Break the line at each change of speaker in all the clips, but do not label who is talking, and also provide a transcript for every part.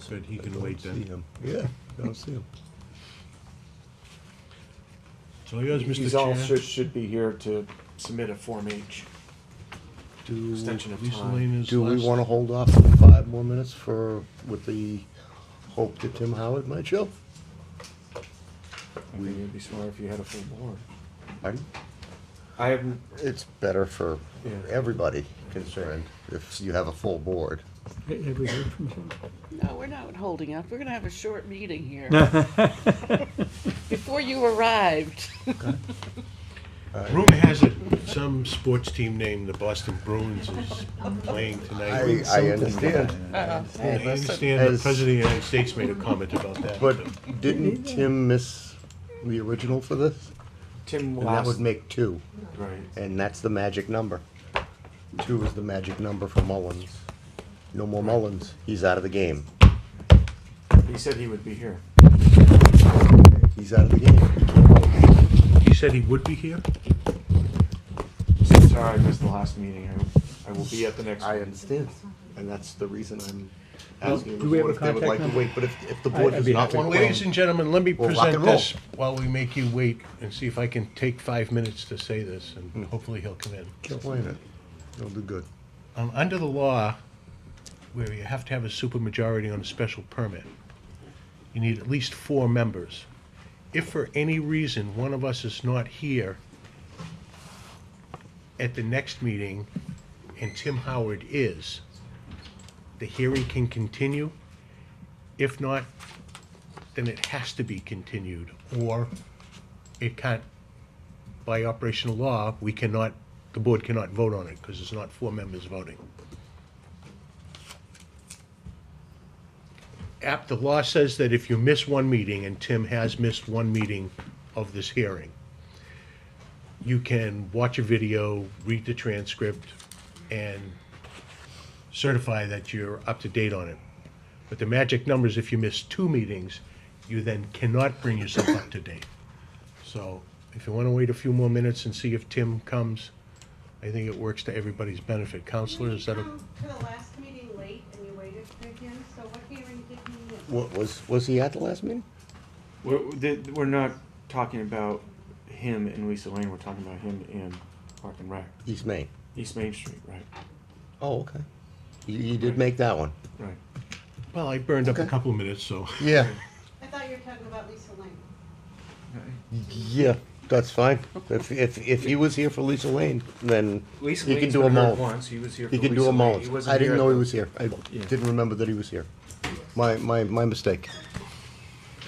said he can wait
See
then.
him. Yeah, I don't see him.
It's all yours, Mr.
He's also
Chair.
should be here to submit a Form H.
Do,
Extension of
Lisa
time.
Lane is
do we
last.
want to hold off for five more minutes for, with the hope that Tim Howard might show?
I think it'd be smart if you had a full board.
Pardon?
I haven't,
It's better for
Yeah.
everybody concerned if you have a full board.
Have we heard from him?
No, we're not holding up. We're gonna have a short meeting here. Before you arrived.
Rumor has it, some sports team named the Boston Bruins is playing
I,
tonight.
I understand,
I understand the
As-
President of the United States made a comment about that.
but didn't Tim miss the original for this?
Tim
And that would
last,
make two,
right,
and that's the magic number. Two is the magic number for Mullins. No more Mullins, he's out of the game.
he said he would be here.
He's out of the game.
He said he would be here?
He said, Sorry, I missed the last meeting. I, I will be at the next
I
one.
understand, and that's the reason I'm
Well,
asking the
do we have
board
a
if they would
contact
like to
number?
wait, but if, if the
I-
board
I'd
does
be
not
happy
want
to-
to.
Ladies and gentlemen, let me
Well, rock
present
and roll.
this while we make you wait and see if I can take five minutes to say this,
Hmm.
and hopefully he'll come in.
Explain it, it'll do good.
Um, under the law, where you have to have a supermajority on a special permit, you need at least four members. If for any reason one of us is not here at the next meeting and Tim Howard is, the hearing can continue. If not, then it has to be continued, or it can't by operational law, we cannot, the board cannot vote on it, because it's not four members voting. App, the law says that if you miss one meeting, and Tim has missed one meeting of this hearing, you can watch a video, read the transcript, and certify that you're up to date on it. But the magic number is if you miss two meetings, you then cannot bring yourself up to date. So if you want to wait a few more minutes and see if Tim comes, I think it works to everybody's benefit. Counselor, is that a,
You come Um, to the last meeting late and you waited for him, so what hearing did you miss?
What, was, was he at the last meeting?
We're, th- we're not talking about him and Lisa Lane. We're talking about him and Park and Rec.
East Main.
East Main Street, right,
Oh, okay. You, you did make that one.
right.
well, I burned up a
Okay.
couple of minutes, so.
Yeah.
I thought you were talking about Lisa Lane.
Yeah, that's fine. If, if, if he was here for Lisa Lane, then he
Lisa
can
Lane's
do a
been heard
Mullins.
once. He was here for
He
Lisa
can do a
Lane. He
Mullins.
wasn't
I didn't
here
know
at
he
the-
was here. I
Yeah.
didn't remember that he was here. My, my, my mistake.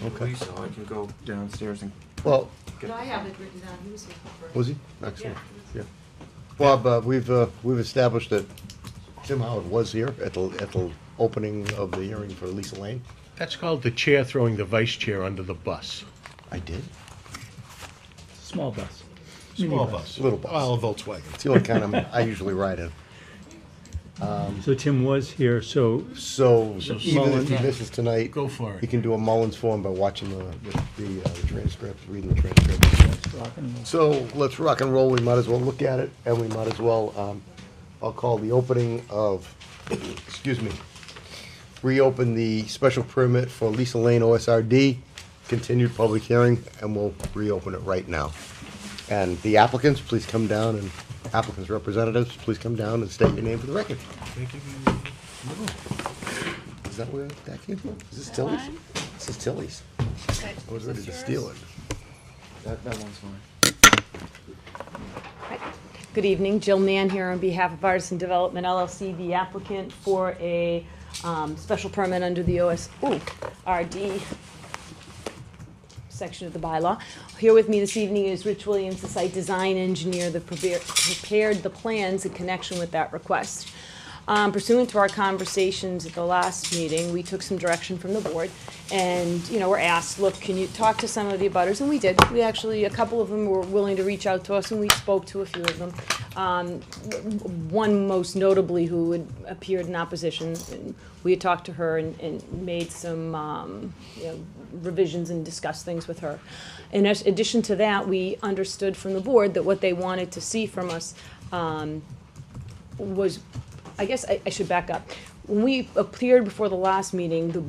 Okay.
Lisa, I can go downstairs and
Well,
get.
No, I have it written down, he was here for
was he? Excellent. Yeah. Bob, uh, we've, uh, we've established that Tim Howard was here at the, at the opening of the hearing for Lisa Lane.
That's called the chair throwing the vice chair under the bus.
I did.
Small bus.
Small
Minibus.
bus.
Little bus.
Well, a Volkswagen.
It's the only kind I'm, I usually ride in.
So Tim was here, so
So even if
Mullins-
he misses tonight,
Go for
he
it.
can do a Mullins form by watching the, the, the uh, transcript, reading the transcript. So let's rock and roll. We might as well look at it, and we might as well. Um, I'll call the opening of, excuse me, reopen the special permit for Lisa Lane OSRD, continued public hearing, and we'll reopen it right now. And the applicants, please come down, and applicants' representatives, please come down and state your name for the record. Is that where that came from? Is this Tilly's?
mine?
This is Tilly's. I was ready to steal it.
That, that one's mine.
Good evening, Jill Mann here on behalf of Artisan Development LLC, the applicant for a um, special permit under the OS, ooh, RD section of the bylaw. Here with me this evening is Rich Williams, the site design engineer that prepare- prepared the plans in connection with that request. Um, Pursuant to our conversations at the last meeting, we took some direction from the board, and, you know, were asked, look, can you talk to some of the abutters? And we did. We actually, a couple of them were willing to reach out to us, and we spoke to a few of them. Um, one most notably who had appeared in opposition. And we had talked to her and, and made some um, you know, revisions and discussed things with her. In as- addition to that, we understood from the board that what they wanted to see from us um, was, I guess I, I should back up. When we appeared before the last meeting, the